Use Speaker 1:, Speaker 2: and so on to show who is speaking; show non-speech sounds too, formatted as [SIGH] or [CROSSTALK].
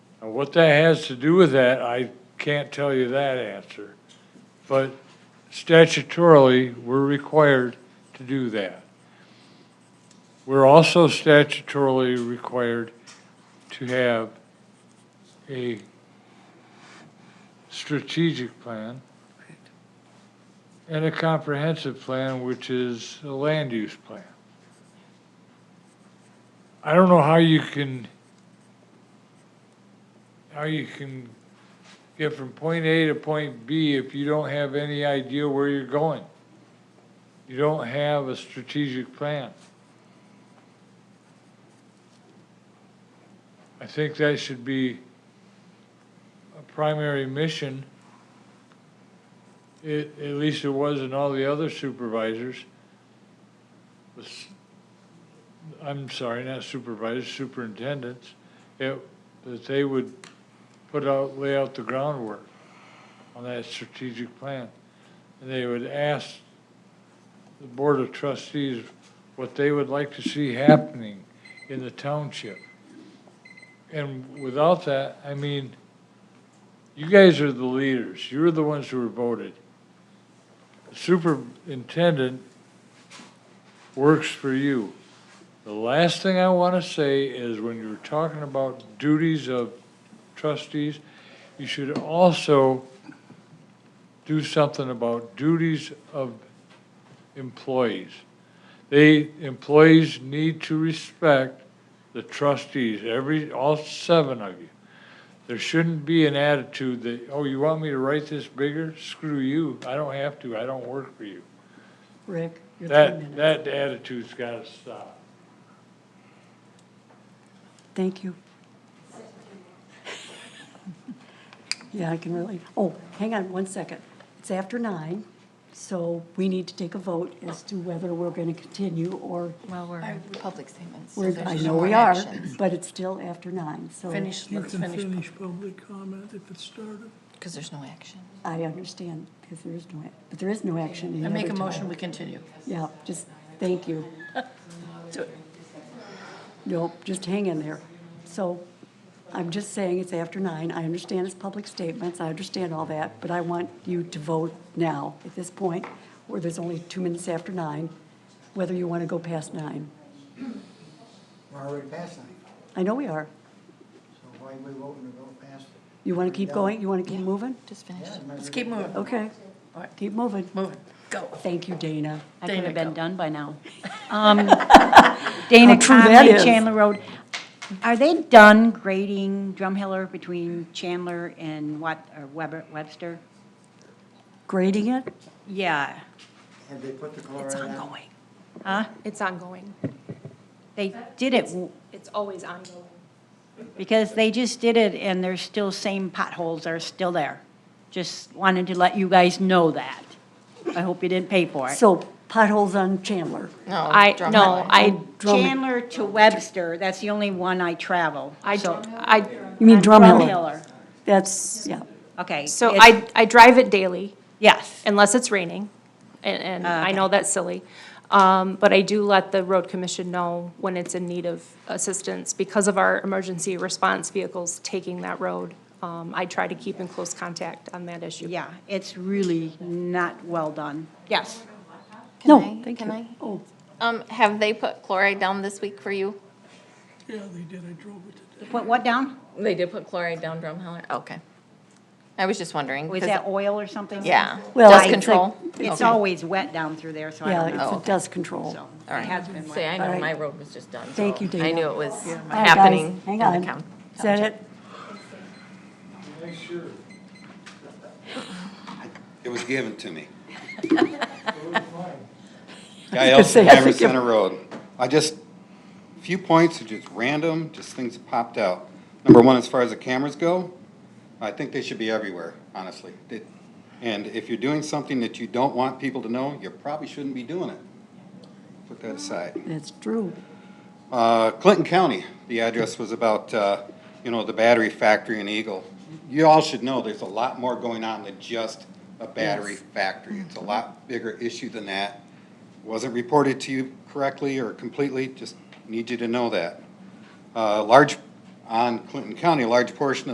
Speaker 1: What that has to do with that, I can't tell you that answer. But statutorily, we're required to do that. We're also statutorily required to have a strategic plan and a comprehensive plan, which is a land use plan. I don't know how you can, how you can get from point A to point B if you don't have any idea where you're going. You don't have a strategic plan. I think that should be a primary mission. It, at least it was in all the other supervisors. Was- I'm sorry, not supervisors, superintendents, it, that they would put out, lay out the groundwork on that strategic plan. And they would ask the Board of Trustees what they would like to see happening in the township. And without that, I mean, you guys are the leaders. You're the ones who were voted. The Superintendent works for you. The last thing I want to say is when you're talking about duties of trustees, you should also do something about duties of employees. They, employees need to respect the trustees, every, all seven of you. There shouldn't be an attitude that, oh, you want me to write this bigger? Screw you, I don't have to, I don't work for you.
Speaker 2: Rick, your three
Speaker 1: That,
Speaker 2: minutes.
Speaker 1: that attitude's gotta stop.
Speaker 2: Thank you. [LAUGHS] Yeah, I can really, oh, hang on one second. It's after nine, so we need to take a vote as to whether we're going to continue or,
Speaker 3: Well, we're in public statements. so
Speaker 2: we're-
Speaker 3: there's
Speaker 2: I
Speaker 3: no
Speaker 2: know
Speaker 3: more
Speaker 2: we are,
Speaker 3: actions.
Speaker 2: but it's still after nine, so
Speaker 3: Finish,
Speaker 4: You
Speaker 3: let's
Speaker 4: can
Speaker 3: finish,
Speaker 4: finish public comment if it started.
Speaker 3: because there's no action.
Speaker 2: I understand, because there is no, ac- but there is no action. in
Speaker 5: I make a
Speaker 2: every
Speaker 5: motion,
Speaker 2: time.
Speaker 5: we continue.
Speaker 2: Yeah, just, thank you.
Speaker 5: Do it.
Speaker 2: Nope, just hang in there. So I'm just saying it's after nine. I understand it's public statements, I understand all that, but I want you to vote now at this point, where there's only two minutes after nine, whether you want to go past nine.
Speaker 6: We're already past nine,
Speaker 2: I know we are.
Speaker 6: so why are we voting to go past?
Speaker 2: You want to keep going? You want to keep moving?
Speaker 3: Just finish.
Speaker 6: Yeah,
Speaker 5: Let's keep moving,
Speaker 2: Okay, keep moving.
Speaker 5: moving, go.
Speaker 2: Thank you, Dana.
Speaker 7: I could
Speaker 5: Dana,
Speaker 7: have
Speaker 5: go.
Speaker 7: been done by now.
Speaker 2: [LAUGHS]
Speaker 7: Um, Dana
Speaker 2: true that
Speaker 7: Conley,
Speaker 2: is.
Speaker 7: Chandler Road. Are they done grading Drumheller between Chandler and what, or Weber, Webster?
Speaker 2: Grading it?
Speaker 7: Yeah,
Speaker 6: Have they put the chloride on?
Speaker 7: huh?
Speaker 8: It's ongoing.
Speaker 7: They did it w-
Speaker 8: It's always ongoing.
Speaker 7: because they just did it and there's still same potholes are still there. Just wanted to let you guys know that. I hope you didn't pay for it.
Speaker 2: So potholes on Chandler.
Speaker 3: No.
Speaker 8: I,
Speaker 3: drum
Speaker 8: no,
Speaker 3: highlight.
Speaker 8: I, drum-
Speaker 7: Chandler to Webster, that's the only one I travel.
Speaker 8: I,
Speaker 7: so-
Speaker 8: I,
Speaker 2: You mean Drumheller?
Speaker 7: Drumheller,
Speaker 2: That's, yeah.
Speaker 7: okay.
Speaker 8: so
Speaker 7: it's-
Speaker 8: I, I drive it daily
Speaker 7: Yes.
Speaker 8: unless it's raining. And, and I know that's silly. Um, but I do let the road commission know when it's in need of assistance because of our emergency response vehicles taking that road. Um, I try to keep in close contact on that issue.
Speaker 7: Yeah, it's really not well done. Yes.
Speaker 3: Can
Speaker 2: No,
Speaker 3: I-
Speaker 2: thank you.
Speaker 3: can I?
Speaker 2: Oh,
Speaker 3: Um, have they put chloride down this week for you?
Speaker 4: Yeah, they did, I drove it today.
Speaker 7: What, what down?
Speaker 3: They did put chloride down Drumheller, okay. I was just wondering.
Speaker 7: Was
Speaker 3: 'cause-
Speaker 7: that oil or something?
Speaker 3: Yeah,
Speaker 2: Well,
Speaker 3: dust
Speaker 2: it's
Speaker 3: control.
Speaker 7: It's
Speaker 3: Okay.
Speaker 7: always wet down through there, so I
Speaker 2: yeah,
Speaker 7: don't know.
Speaker 3: Oh,
Speaker 2: it's a
Speaker 3: okay.
Speaker 2: dust control.
Speaker 7: So,
Speaker 3: All
Speaker 7: it
Speaker 3: right.
Speaker 7: has been
Speaker 3: See,
Speaker 7: wet.
Speaker 3: I
Speaker 2: All
Speaker 3: know
Speaker 2: right.
Speaker 3: my road was just done. so
Speaker 2: Thank you, Dana.
Speaker 3: I knew it was
Speaker 2: All right, guys,
Speaker 3: happening in
Speaker 2: Hang
Speaker 3: the
Speaker 2: on.
Speaker 3: county.
Speaker 2: Is that it?
Speaker 9: It was given to me.
Speaker 2: gonna say,
Speaker 9: Guy
Speaker 2: I
Speaker 9: Elson,
Speaker 2: think you-
Speaker 9: Center Road. I just, few points, are just random, just things that popped out. Number one, as far as the cameras go, I think they should be everywhere, honestly. They- And if you're doing something that you don't want people to know, you probably shouldn't be doing it. Put that aside.
Speaker 2: That's true.
Speaker 9: Uh, Clinton County, the address was about, uh, you know, the battery factory in Eagle. You all should know, there's a lot more going on than just a battery factory. It's a lot bigger issue than that. Wasn't reported to you correctly or completely, just need you to know that. Uh, Large, on Clinton County, a large portion of